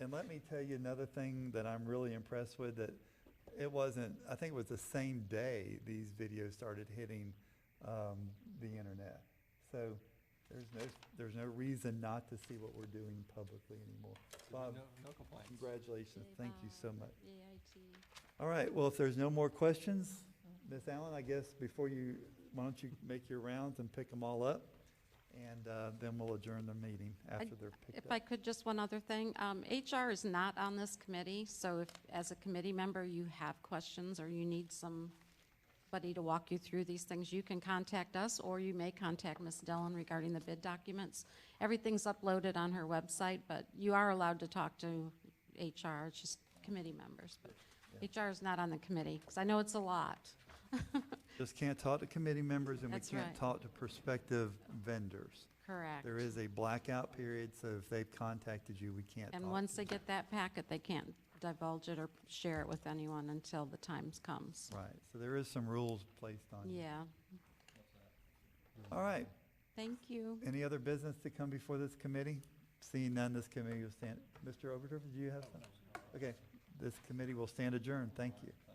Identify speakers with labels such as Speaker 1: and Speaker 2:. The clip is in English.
Speaker 1: And let me tell you another thing that I'm really impressed with that it wasn't, I think it was the same day these videos started hitting um, the internet. So there's no, there's no reason not to see what we're doing publicly anymore. Bob,
Speaker 2: No complaints.
Speaker 1: congratulations. Thank you so much.
Speaker 3: E AIG.
Speaker 1: All right, well, if there's no more questions, Ms. Allen, I guess before you, why don't you make your rounds and pick them all up? And uh, then we'll adjourn the meeting after they're
Speaker 3: If
Speaker 1: picked
Speaker 3: I
Speaker 1: up.
Speaker 3: could, just one other thing. Um, HR is not on this committee, so if, as a committee member, you have questions or you need somebody to walk you through these things, you can contact us, or you may contact Ms. Dillon regarding the bid documents. Everything's uploaded on her website, but you are allowed to talk to HR, it's just committee members. But HR is not on the committee, because I know it's a lot.
Speaker 1: Just can't talk to committee members and we
Speaker 3: That's
Speaker 1: can't
Speaker 3: right.
Speaker 1: talk to prospective vendors.
Speaker 3: Correct.
Speaker 1: There is a blackout period, so if they've contacted you, we can't talk
Speaker 3: And
Speaker 1: to
Speaker 3: once they
Speaker 1: them.
Speaker 3: get that packet, they can't divulge it or share it with anyone until the time comes.
Speaker 1: Right, so there is some rules placed on you.
Speaker 3: Yeah,
Speaker 1: All right,
Speaker 3: thank you.
Speaker 1: any other business to come before this committee? Seeing none, this committee will stand, Mr. Overturf, do you have something? Okay, this committee will stand adjourned, thank you.